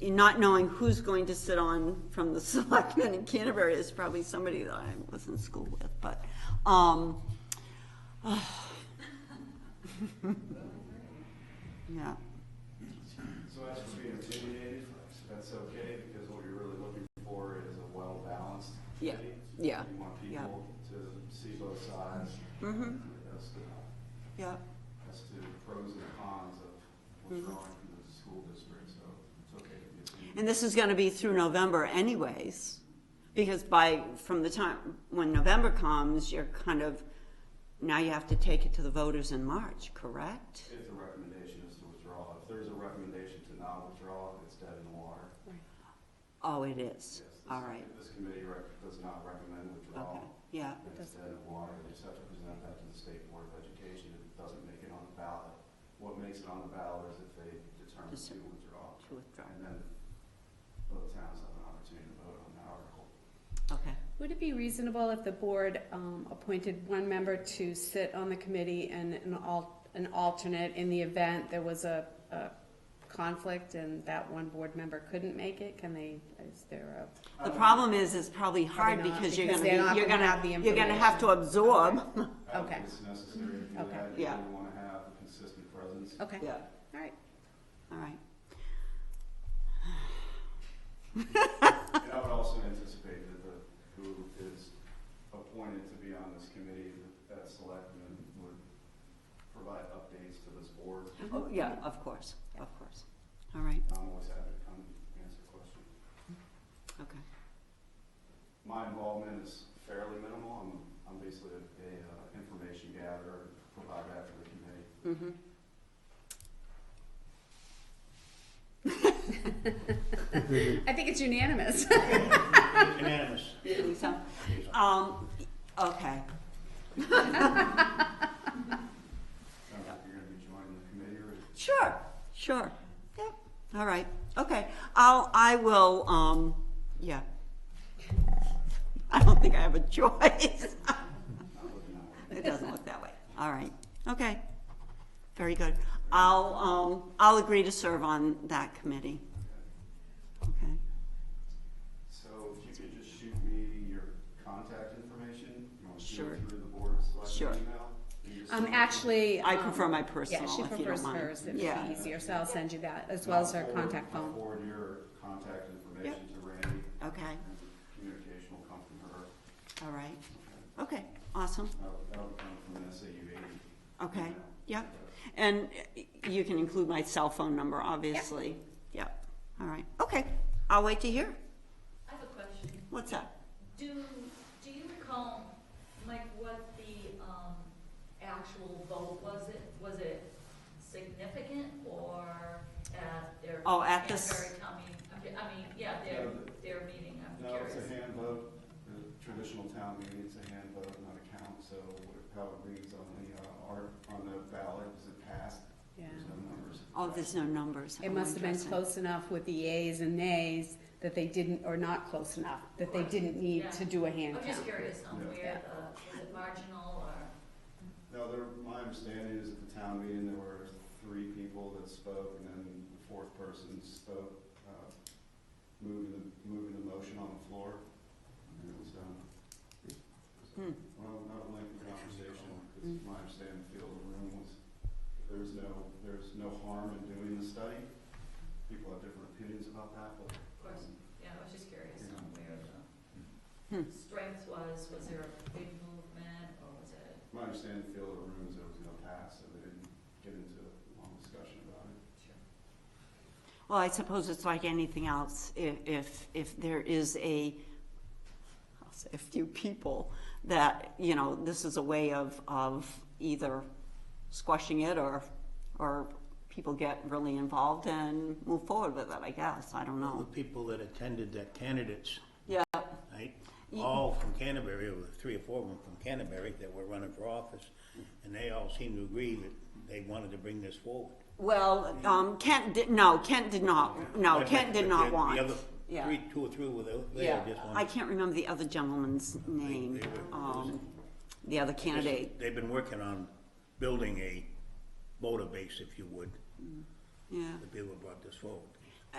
not knowing who's going to sit on from the selectmen in Canterbury is probably somebody that I was in school with, but, um, yeah, So as for being opinionated, that's okay, because what you're really looking for is a well-balanced Yeah, committee. yeah, You want yeah. people to see both sides. As to, yeah, as to pros and cons of what's wrong in the school district, so it's okay to be opinionated. Mm-hmm. and this is gonna be through November anyways, because by, from the time, when November comes, you're kind of, now you have to take it to the voters in March, correct? If the recommendation is to withdraw, if there's a recommendation to not withdraw, it's dead in the water. Oh, it is, Yes, this- all right, If this committee rec- does not recommend okay, withdrawal, yeah, then it's dead in the water, they just have to present that to the State Board of Education, if it doesn't make it on the ballot. What makes it on the ballot is if they determine to Dis- withdraw, to withdraw, and then both towns have an opportunity to vote on the article. okay. Would it be reasonable if the board um, appointed one member to sit on the committee and an al- an alternate in the event there was a a conflict and that one board member couldn't make it? Can they, is there The problem is, it's probably hard Probably not, because you're because gonna they're not be, you're gonna gonna, have the you're gonna have to absorb, I don't Okay. think Uh, it's necessary to do Okay. that, you Yeah. really wanna have a consistent presence. a, okay, yeah, all right. all right, And I would also anticipate that the, who is appointed to be on this committee, that- that selectmen would provide updates to this board. Mm-hmm. Uh-huh. Oh, yeah, of course, of course, all right, I'm always happy to come and answer questions. okay, My involvement is fairly minimal. I'm, I'm basically a, a uh, information gatherer, provider after the committee. mm-hmm. I think it's unanimous. Unanimous. Think so? Um, okay, I don't know if you're gonna be joining the committee or. sure, sure, yep, all right, okay, I'll, I will, um, yeah. I don't think I have a choice, I'm looking at it. it doesn't look that way, all right, okay, very good. I'll, um, I'll agree to serve on that committee, okay? So if you could just shoot me your contact information, you want to shoot Sure. it through the board Sure. selection email? You just Um, send it- Actually. I um, prefer my personal, Yeah, she if you don't prefers mind. hers, it would Yeah. be easier, so I'll send you that, as and well I'll as her forward- contact I'll phone. Forward your contact information to Randy, Okay, and communication will come from her. all right, okay, awesome, That'll, that'll come from an SAU eighty. okay, email. yep. And you can include my cell phone number, obviously, yep, all right, okay, I'll wait to hear. I have a question. What's up? Do, do you recall, Mike, what the, um, actual vote was it? Was it significant or at their? Oh, at the s- Canterbury town meeting? I mean, yeah, their, their meeting, I'm No, curious. it's a hand vote, the traditional town meeting, it's a hand vote, not a count, so what- how it reads on the, uh, art, on the ballot, is it passed? Yeah. There's no numbers. Oh, there's no numbers. It Oh, must have been interesting. close enough with the yeas and nays that they didn't, or not close enough, that they didn't need to do a hand I'm count. just curious on Yeah. where the, was it marginal or? No, there, my understanding is at the town meeting, there were three people that spoke, and then the fourth person spoke, uh, moving the, moving the motion on the floor, and it was done. Hmm, Well, not a lengthy conversation, Mm. because my understanding of the feel of the room was, there's no, there's no harm in doing the study. People have different opinions about that, but. um, Of course. Yeah, I was just curious on where Hmm. the strength was. Was there a big movement or was it? My understanding of the feel of the room is there was no pass, so they didn't get into a long discussion about it. Well, I suppose it's like anything else, i- if, if there is a, I'll say a few people that, you know, this is a way of, of either squashing it or, or people get really involved and move forward with it, I guess, I don't The know. people that attended, the candidates, Yeah, right? Ye- All from Canterbury, or three or four of them from Canterbury that were running for office, and they all seemed to agree that they wanted to bring this forward. well, um, Kent did, no, Kent did not, no, But- Kent did but not the- want. The other, Yeah. three, two or three were there, they Yeah, all just I wanted. can't remember the other gentleman's name, they were- um, the other candidate, They've been working on building a voter base, if you would, yeah. the people who brought this forward.